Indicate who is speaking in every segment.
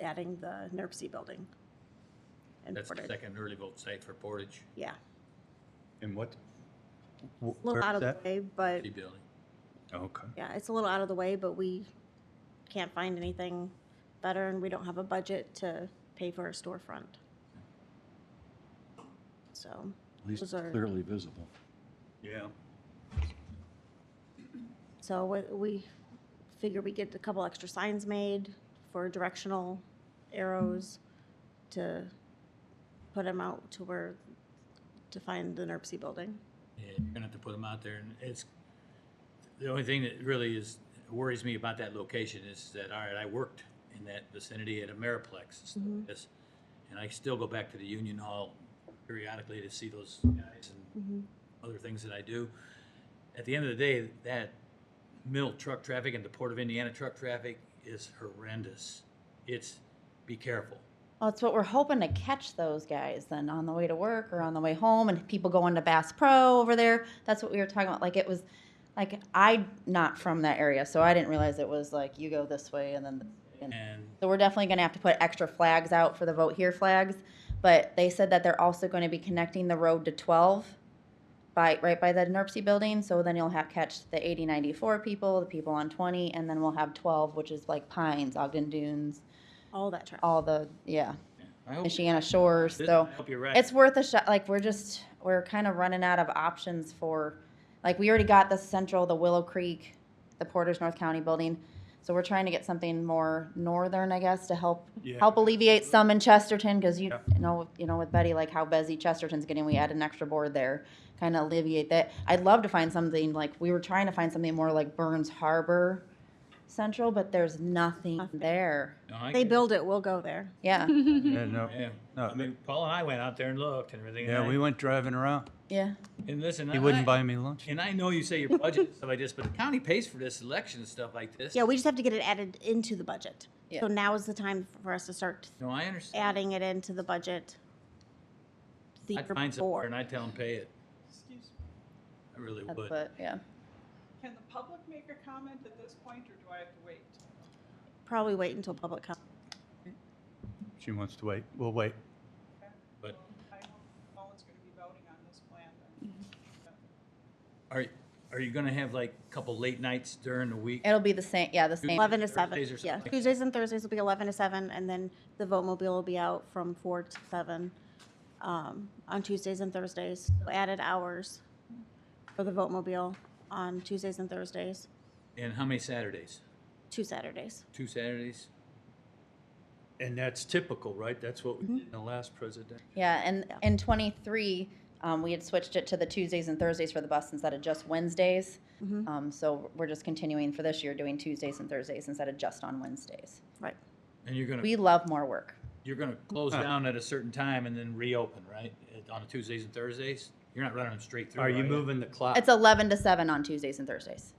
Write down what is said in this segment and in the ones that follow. Speaker 1: adding the NERC building. in
Speaker 2: That's the
Speaker 1: Portage.
Speaker 2: second early vote site for Portage
Speaker 1: Yeah,
Speaker 3: And what?
Speaker 1: a little out of the way, but
Speaker 2: City Building.
Speaker 3: Okay.
Speaker 1: yeah, it's a little out of the way, but we can't find anything better and we don't have a budget to pay for a storefront. So,
Speaker 4: At least it's
Speaker 1: Those are-
Speaker 4: clearly visible.
Speaker 3: Yeah.
Speaker 1: so we, we figure we get a couple extra signs made for directional arrows to put them out to where, to find the NERC building.
Speaker 2: Yeah, you're gonna have to put them out there, and it's, the only thing that really is, worries me about that location is that, all right, I worked in that vicinity at Ameriplex and stuff like this, and I still go back to the Union Hall periodically to see those guys and other things that I do. At the end of the day, that mill truck traffic and the Port of Indiana truck traffic is horrendous. It's, be careful.
Speaker 5: Well, it's what we're hoping to catch those guys then on the way to work or on the way home, and people going to Bass Pro over there. That's what we were talking about. Like it was, like I not from that area, so I didn't realize it was like you go this way and then. And
Speaker 2: And
Speaker 5: so we're definitely going to have to put extra flags out for the vote here flags. But they said that they're also going to be connecting the road to 12 by right by the NERPC building. So then you'll have catch the 80, 94 people, the people on 20, and then we'll have 12, which is like Pines, Ogden Dunes,
Speaker 1: All that traffic.
Speaker 5: all the yeah,
Speaker 2: I hope,
Speaker 5: Michiana Shores.
Speaker 2: I
Speaker 5: So
Speaker 2: hope you're right.
Speaker 5: it's worth a shot. Like we're just we're kind of running out of options for, like we already got the central, the Willow Creek, the Porter's North County building, so we're trying to get something more northern, I guess, to help
Speaker 3: Yeah.
Speaker 5: help alleviate some in Chesterton because you
Speaker 3: Yeah.
Speaker 5: know you know with Betty like how busy Chesterton's getting, we add an extra board there, kind of alleviate that. I'd love to find something like we were trying to find something more like Burns Harbor. Central, but there's nothing there.
Speaker 2: No, I
Speaker 1: They
Speaker 2: get it.
Speaker 1: build it, we'll go there.
Speaker 5: Yeah,
Speaker 3: Yeah, no,
Speaker 2: Yeah,
Speaker 3: No.
Speaker 2: I mean, Paul and I went out there and looked and everything. and
Speaker 3: yeah, Uh,
Speaker 2: I-
Speaker 3: we went driving around.
Speaker 5: yeah.
Speaker 2: And listen,
Speaker 3: He
Speaker 2: I-
Speaker 3: wouldn't buy me lunch.
Speaker 2: And I know you say your budget and stuff like this, but the county pays for this election and stuff like this.
Speaker 1: Yeah, we just have to get it added into the budget.
Speaker 5: Yeah.
Speaker 1: So now is the time for us to start
Speaker 2: No, I understand.
Speaker 1: adding it into the budget. the
Speaker 2: I'd
Speaker 1: year
Speaker 2: find
Speaker 1: before.
Speaker 2: somewhere and I'd tell them pay it.
Speaker 6: Excuse me,
Speaker 2: I really
Speaker 5: That's
Speaker 2: would.
Speaker 5: what, yeah.
Speaker 6: can the public make a comment at this point, or do I have to wait?
Speaker 1: Probably wait until public comment.
Speaker 3: She wants to wait. We'll wait.
Speaker 2: But,
Speaker 6: I hope no one's gonna be voting on this plan then.
Speaker 2: are, are you gonna have like a couple late nights during the week?
Speaker 5: It'll be the same. Yeah, the same.
Speaker 1: Eleven to
Speaker 2: Thursdays
Speaker 1: seven,
Speaker 2: or something
Speaker 1: yeah.
Speaker 2: like that.
Speaker 1: Tuesdays and Thursdays will be eleven to seven, and then the vote mobile will be out from four to seven um, on Tuesdays and Thursdays. So Added hours for the vote mobile on Tuesdays and Thursdays,
Speaker 2: And how many Saturdays?
Speaker 1: two Saturdays.
Speaker 2: Two Saturdays?
Speaker 3: And that's typical, right? That's what we did
Speaker 1: Mm-hmm.
Speaker 3: in the last president.
Speaker 5: Yeah, and in '23, um, we had switched it to the Tuesdays and Thursdays for the bus instead of just Wednesdays. Um, so we're just continuing for this year doing Tuesdays and Thursdays instead of just on Wednesdays.
Speaker 1: Right.
Speaker 2: And you're gonna,
Speaker 5: We love more work.
Speaker 2: you're gonna close down at a certain time and then reopen, right? At- On Tuesdays and Thursdays? You're not running them straight through,
Speaker 3: Are you moving the clock?
Speaker 5: It's 11 to 7 on Tuesdays and Thursdays.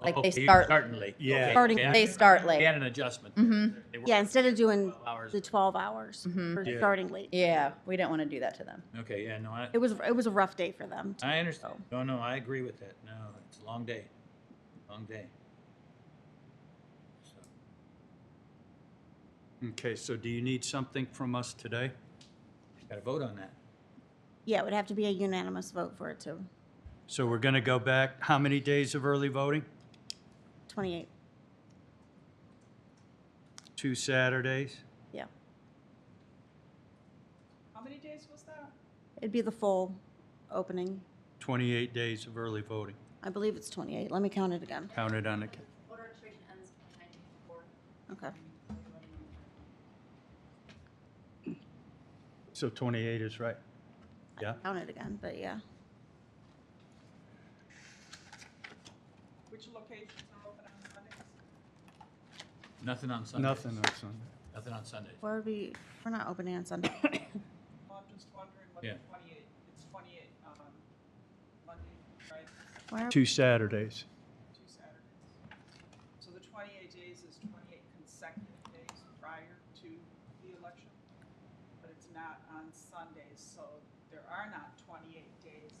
Speaker 5: like they
Speaker 2: Okay, Oh, you're
Speaker 5: start-
Speaker 2: Starting late.
Speaker 3: Yeah.
Speaker 2: Okay,
Speaker 1: Starting-
Speaker 2: okay.
Speaker 5: They start
Speaker 2: They
Speaker 5: late. Mm-hmm.
Speaker 2: had an adjustment. They were-
Speaker 1: Yeah, instead of doing
Speaker 2: 12 hours.
Speaker 1: the twelve hours for
Speaker 3: Yeah.
Speaker 1: starting late.
Speaker 5: Yeah, we didn't want to do that to them.
Speaker 2: Okay, yeah, no, I,
Speaker 1: It Oh. was, it was a rough day for them.
Speaker 2: I understand. No, no, I agree with that. No, it's a long day, long day. So,
Speaker 3: Okay, so do you need something from us today?
Speaker 2: Gotta vote on that.
Speaker 1: Yeah, it would have to be a unanimous vote for it to
Speaker 3: So we're going to go back, how many days of early voting?
Speaker 1: twenty-eight,
Speaker 3: Two Saturdays?
Speaker 1: yeah.
Speaker 6: How many days was that?
Speaker 1: It'd be the full opening.
Speaker 3: 28 days of early voting,
Speaker 1: I believe it's twenty-eight. Let me count it again.
Speaker 3: counted on the, ca-
Speaker 1: Okay.
Speaker 3: so 28 is right. Yeah?
Speaker 1: Count it again, but yeah.
Speaker 6: Which locations are open on Sundays?
Speaker 2: Nothing on Sunday.
Speaker 3: Nothing on Sunday.
Speaker 2: Nothing on Sunday.
Speaker 1: Where would we, we're not opening on Sunday.
Speaker 6: Well, I'm just wondering what
Speaker 2: Yeah.
Speaker 6: the twenty-eight, it's twenty-eight, um, Monday, right,
Speaker 1: Where-
Speaker 3: Two Saturdays.
Speaker 6: two Saturdays. So the twenty-eight days is twenty-eight consecutive days prior to the election, but it's not on Sundays, so there are not twenty-eight days.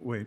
Speaker 3: Wait,